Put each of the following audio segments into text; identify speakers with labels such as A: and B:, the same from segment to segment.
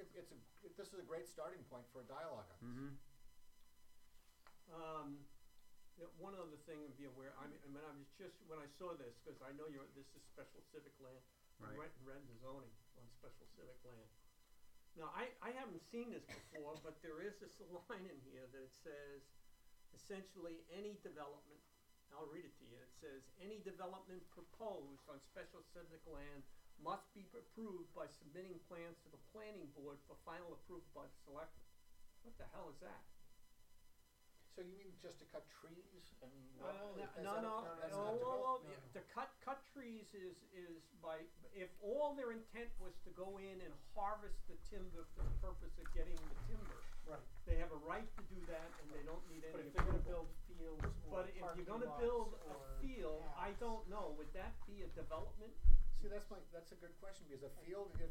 A: this is a great starting point for a dialogue on this.
B: Mm-hmm.
C: Um, yeah, one other thing to be aware, I mean, I mean, I was just, when I saw this, because I know you're, this is special civic land. you
B: Right.
C: Went and read the zoning on special civic land. Now, I, I haven't seen this before, but there is this line in here that says, essentially, any development, I'll read it to you, it says, any development proposed on special civic land must be approved by submitting plans to the planning board for final approval by the selectmen. What the hell is that?
A: So you mean just to cut trees and?
C: No, no,
A: what-
C: no,
A: is that-
C: no, oh, no,
A: that's
C: no,
A: not develop-
C: no,
A: no,
C: yeah,
A: no.
C: to cut, cut trees is, is by, if all their intent was to go in and harvest the timber for the purpose of getting the timber,
D: Right,
C: they have a right to do that and they don't need
D: but
C: any
D: if they're gonna
C: approval.
D: build fields or
C: But
D: parking
C: if
D: lots
C: you're gonna build
D: or
C: a field, I
D: paths,
C: don't know, would that be a development?
A: See, that's my, that's a good question, because a field, if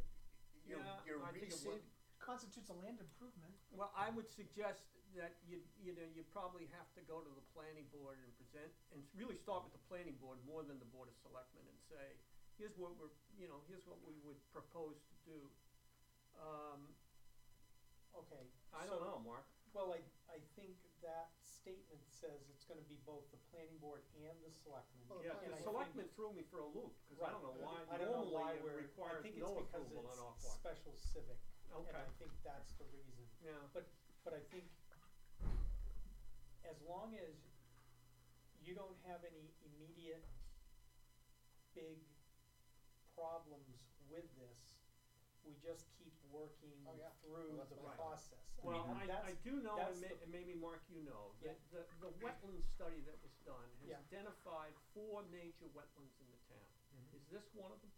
A: you're,
C: Yeah,
A: you're
C: I think it would.
A: reseed,
D: Constitutes a land improvement.
C: Well, I would suggest that you, you know, you probably have to go to the planning board and present, and really start with the planning board more than the board of selectmen and say, here's what we're, you know, here's what we would propose to do. Um,
D: Okay.
C: I
D: so-
C: don't know, Mark.
D: Well, I, I think that statement says it's gonna be both the planning board and the selectmen.
A: Well,
C: Yeah,
A: planning board-
C: the selectmen threw me for a loop, cause I don't know why,
D: I don't know why
C: normally it
D: we're- I
C: requires
D: think it's
C: no
D: because
C: approval on our
D: it's
C: part.
D: special civic, and
C: Okay.
D: I think that's the reason.
C: Yeah,
D: But, but I think as long as you don't have any immediate big problems with this, we just keep working
A: Oh, yeah.
D: through
A: Well, that's
D: the
A: fine.
D: process. I
C: well, I,
D: mean, that's-
C: I do know, and
D: that's
C: may,
D: the-
C: and maybe Mark, you know,
D: Yeah.
C: that the, the wetland study that was done has
D: Yeah.
C: identified four major wetlands in the town.
D: Mm-hmm.
C: Is this one of them?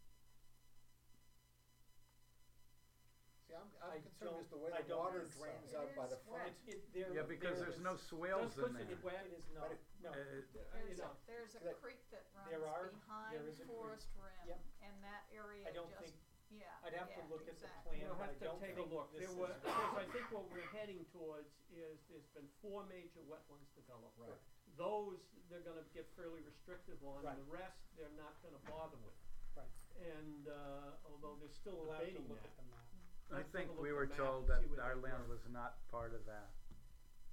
A: See, I'm,
D: I
A: I'm concerned is
D: don't-
A: the way
D: I
A: the
D: don't
A: water
D: think so.
A: drains out by the
E: It is wet.
A: front.
D: It, it, there,
B: Yeah, because
D: there
B: there's
D: is-
B: no swales in
C: That's supposed to
B: there.
C: be wet.
D: It is not,
A: But it-
D: no.
B: Uh,
C: Uh, you
E: There's
C: know,
E: a, there's a
A: that-
E: creek that
D: There are-
E: runs
D: there
E: behind
D: is a creek.
E: Forest Rim,
D: Yep.
E: and that area
D: I don't
E: just,
D: think,
E: yeah,
D: I'd have to
E: yeah,
D: look at the
E: exactly.
D: plan,
C: We'll
D: but I
C: have to
D: don't
C: take a look.
D: think
C: There
D: this is.
C: were, because I think what we're heading towards is, there's been four major wetlands developed.
A: Right.
C: Those, they're gonna get fairly restrictive on,
D: Right.
C: the rest, they're not gonna bother with.
D: Right,
C: And, uh, although they're still
D: we'll have to
C: debating
D: look at
C: that.
D: the map.
B: I
C: Let's take a
B: think
C: look
B: we
C: at
B: were
C: the map
B: told
C: and see
B: that
C: where
B: our
C: they
B: land
C: were.
B: was not part of that.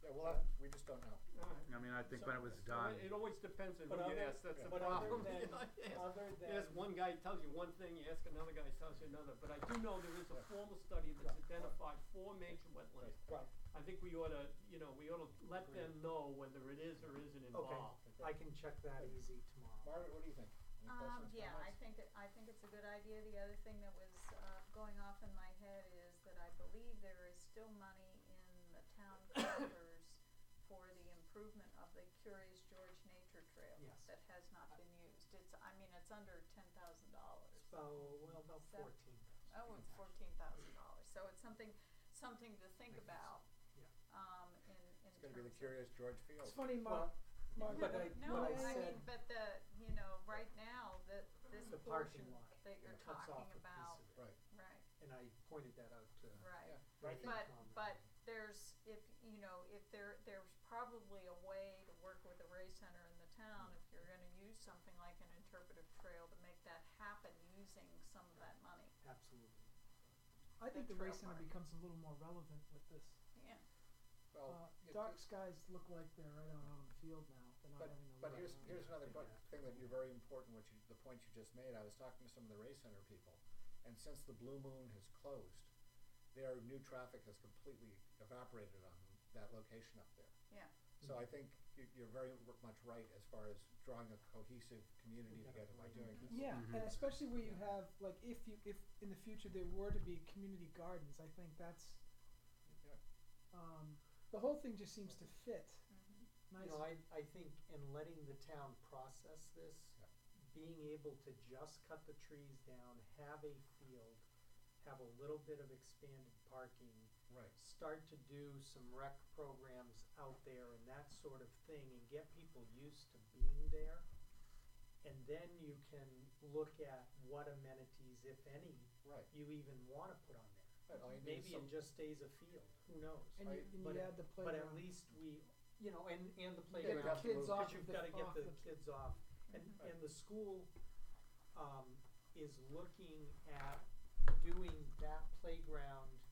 A: Yeah, well, I- we just don't know.
C: All right.
B: I mean, I think
D: So-
B: when it was
C: So
B: done,
C: It it always depends on who
D: But
C: you
D: other-
C: ask, that's the
D: but other
C: problem.
D: than-
C: You know, you ask-
D: Other
C: You ask
D: than-
C: one guy, he tells you one thing, you ask another guy, he tells you another, but I do know there is a formal study that's
D: Right.
C: identified four major wetlands.
D: Right,
C: I think we ought to, you know, we ought to let them know whether it is or isn't
D: okay,
C: involved.
D: I can check that easy tomorrow.
A: uh, Margaret, what do you think? Any
E: Um,
A: questions,
E: yeah, I
A: comments?
E: think it, I think it's a good idea. The other thing that was, uh, going off in my head is that I believe there is still money in the town coffers for the improvement of the Curious George Nature Trail.
D: Yes.
E: That has not been used. It's, I mean, it's under ten thousand dollars.
D: So, well, about
E: So-
D: fourteen.
E: Oh, it's fourteen thousand dollars. So it's something, something to think
D: Makes sense.
E: about,
D: Yeah.
E: um, in, in terms
A: It's
E: of.
A: gonna be the curious George Field.
F: It's funny, Mark.
D: Well, but
F: Mark,
D: I,
E: No, I
D: but I
E: mean,
D: said,
E: but the, you know, right now, that this
D: The parking
E: portion
D: lot
E: that you're
D: it cuts
E: talking
D: off a
E: about,
D: piece of it,
A: Right,
E: right,
D: and I pointed that out to.
A: yeah.
E: right.
A: But I think-
E: But,
D: Um,
E: but there's, if, you know, if there, there's probably a way to work with the Ray Center in the town, if you're gonna use something like an interpretive trail to make that happen using some of that money,
D: Absolutely.
F: I think
E: the
F: the race
E: trail
F: center
E: part.
F: becomes a little more relevant with this.
E: yeah.
D: Oh,
F: Uh,
A: Well, it-
F: dark skies look like they're right out on the field now. They're not
A: But,
F: having a
A: but
F: look.
A: here's, here's another
D: Yeah.
A: bu- thing that you're very important, which you, the point you just made, I was talking to some of the Ray Center people, and since the Blue Moon has closed, their new traffic has completely evaporated on that location up there.
E: Yeah,
A: So I think you, you're very r- much right as far as drawing a cohesive community together by doing this.
F: yeah,
B: Mhm.
F: and especially where you have like if you if in the future there were to be community gardens, I think that's
A: Yeah.
F: um, the whole thing just seems to fit
E: mhm.
F: nice.
D: You know, I, I think in letting the town process this,
A: Yeah.
D: being able to just cut the trees down, have a field, have a little bit of expanded parking,
A: Right.
D: start to do some rec programs out there and that sort of thing and get people used to being there. And then you can look at what amenities, if any,
A: Right.
D: you even wanna put on there.
A: But all you need is
D: Maybe
A: some-
D: it just stays a field, who knows?
F: and you, and
D: But
F: you
D: at-
F: add the
D: But
F: playground.
D: at least we, you know, and, and the
F: You get
D: playground.
A: would have
F: uh, the
A: to
F: kids
A: move-
F: off
D: Because
F: of
D: you've
F: the,
D: gotta get
F: off
D: the
F: the
D: kids off.
E: Mm-hmm.
D: And,
A: Mhm.
D: and the school, um, is looking at doing that playground